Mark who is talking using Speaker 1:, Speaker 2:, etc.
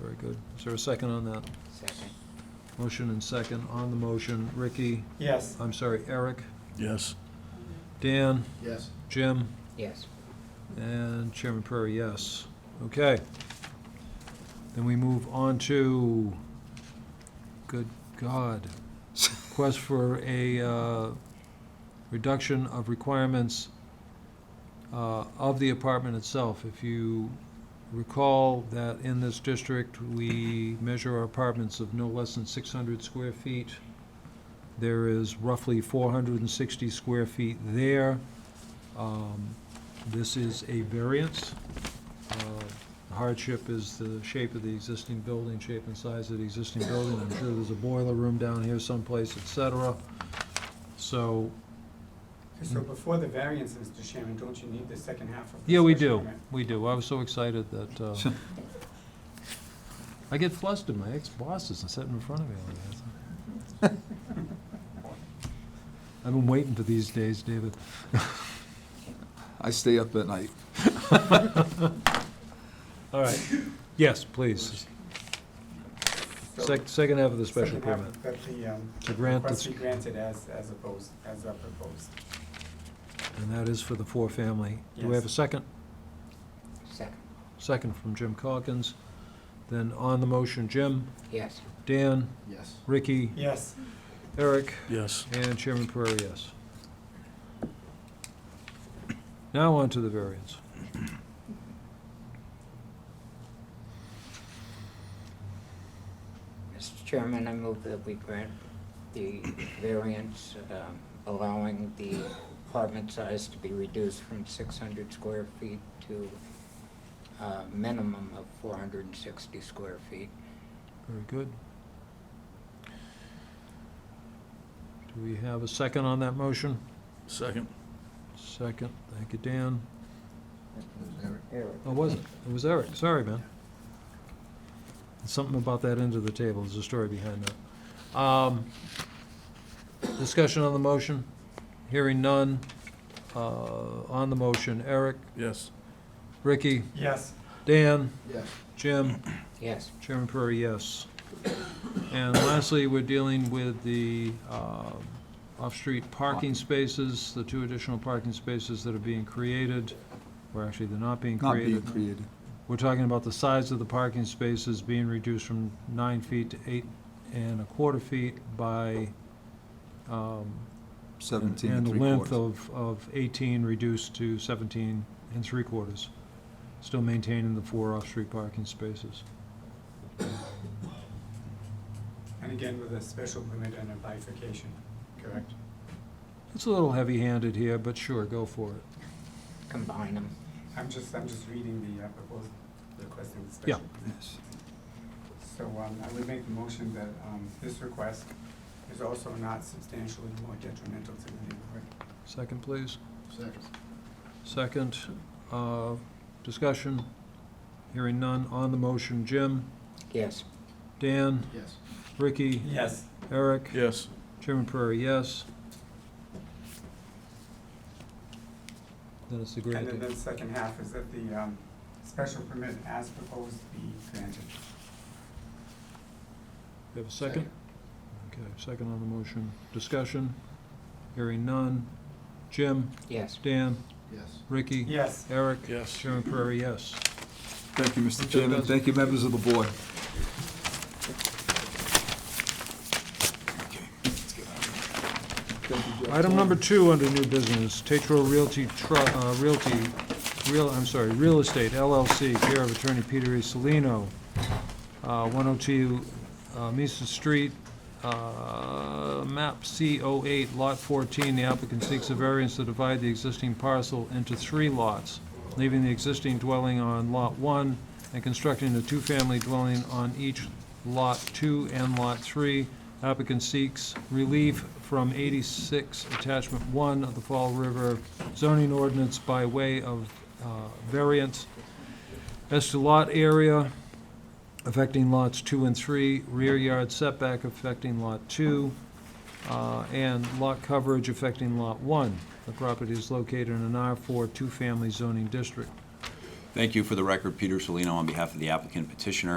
Speaker 1: Very good. Is there a second on that?
Speaker 2: Second.
Speaker 1: Motion and second on the motion. Ricky,
Speaker 3: Yes.
Speaker 1: I'm sorry, Eric,
Speaker 4: Yes.
Speaker 1: Dan,
Speaker 5: Yes.
Speaker 1: Jim,
Speaker 2: Yes.
Speaker 1: and Chairman Prairie, yes. Okay. Then we move on to, good God, request for a uh, reduction of requirements uh, of the apartment itself. If you recall that in this district, we measure our apartments of no less than 600 square feet. There is roughly 460 square feet there. Um, This is a variance. Uh, The Hardship is the shape of the existing building, shape and size of the existing building. I'm sure there's a boiler room down here someplace, et cetera. So,
Speaker 3: So before the variance, Mr. Chairman, don't you need the second half of the
Speaker 1: yeah, we do,
Speaker 3: special permit?
Speaker 1: we do. I was so excited that, uh, I get flustered, my ex-boss isn't sitting in front of me like that. I've been waiting for these days, David.
Speaker 5: I stay up at night.
Speaker 1: All right, yes, please.
Speaker 3: So
Speaker 1: Sec- Second half of the special
Speaker 3: second half
Speaker 1: permit.
Speaker 3: That the, um,
Speaker 1: To grant
Speaker 3: request
Speaker 1: the-
Speaker 3: be granted as, as opposed, as uh, proposed.
Speaker 1: And that is for the four-family. Do we have a
Speaker 3: Yes.
Speaker 1: second?
Speaker 2: Second.
Speaker 1: Second from Jim Calkins. Then on the motion, Jim,
Speaker 2: Yes.
Speaker 1: Dan,
Speaker 5: Yes.
Speaker 1: Ricky,
Speaker 3: Yes,
Speaker 1: Eric,
Speaker 4: Yes.
Speaker 1: and Chairman Prairie, yes. Now on to the variance.
Speaker 2: Mr. Chairman, I move that we grant the variance um, allowing the apartment size to be reduced from 600 square feet to a minimum of 460 square feet.
Speaker 1: Very good. Do we have a second on that motion?
Speaker 4: Second.
Speaker 1: Second, thank you, Dan.
Speaker 2: Eric?
Speaker 1: Oh, was it? It was Eric, sorry, man. Something about that end of the table, there's a story behind that. Um, Discussion on the motion, hearing none. Uh, On the motion, Eric,
Speaker 4: Yes.
Speaker 1: Ricky,
Speaker 3: yes,
Speaker 1: Dan,
Speaker 5: Yes.
Speaker 1: Jim,
Speaker 2: Yes.
Speaker 1: Chairman Prairie, yes. And lastly, we're dealing with the uh, off-street parking spaces, the two additional parking spaces that are being created, or actually, they're not being
Speaker 5: Not being
Speaker 1: created.
Speaker 5: created.
Speaker 1: We're talking about the size of the parking spaces being reduced from nine feet to eight and a quarter feet by, um, and
Speaker 5: Seventeen and
Speaker 1: the
Speaker 5: three
Speaker 1: length
Speaker 5: quarters.
Speaker 1: of, of eighteen reduced to seventeen and three quarters. Still maintaining the four off-street parking spaces.
Speaker 3: and again with a special permit and a bifurcation, correct?
Speaker 1: It's a little heavy-handed here, but sure, go for it.
Speaker 2: Combine them.
Speaker 3: I'm just, I'm just reading the uh, proposed, requesting the
Speaker 1: Yeah.
Speaker 3: special.
Speaker 5: Yes.
Speaker 3: So um, I would make the motion that um, this request is also not substantially more detrimental to the neighborhood.
Speaker 1: Second, please.
Speaker 5: Second.
Speaker 1: Second, uh, discussion, hearing none. On the motion, Jim,
Speaker 2: Yes.
Speaker 1: Dan,
Speaker 5: Yes.
Speaker 1: Ricky,
Speaker 3: Yes,
Speaker 1: Eric.
Speaker 4: Yes.
Speaker 1: Chairman Prairie, yes. Then it's the
Speaker 3: and then
Speaker 1: granted.
Speaker 3: the second half is that the um, special permit as proposed be granted.
Speaker 1: You have a second? Okay, second on the motion. Discussion? Hearing none. Jim,
Speaker 2: Yes.
Speaker 1: Dan,
Speaker 5: Yes.
Speaker 1: Ricky,
Speaker 3: Yes,
Speaker 1: Eric?
Speaker 4: Yes.
Speaker 1: Chairman Prairie, yes.
Speaker 5: Thank you, Mr. Chairman.
Speaker 1: does it.
Speaker 5: Thank you, members of the board. Thank you, Jeff.
Speaker 1: Item number two under new business, Tetro Realty, Tru- uh, Realty, Real, I'm sorry, Real Estate LLC, care of attorney Peter E. Salino, uh, 102 uh, Mises Street, uh, map C08, lot 14. The applicant seeks a variance to divide the existing parcel into three lots, leaving the existing dwelling on Lot 1 and constructing a two-family dwelling on each Lot 2 and Lot 3. Applicant seeks relief from 86 Attachment 1 of the Fall River zoning ordinance by way of uh, variance. As to lot area, affecting lots two and three, rear yard setback affecting lot two, uh, and lot coverage affecting lot one. The property is located in an R4 two-family zoning district.
Speaker 6: Thank you. For the record, Peter Salino on behalf of the applicant petitioner.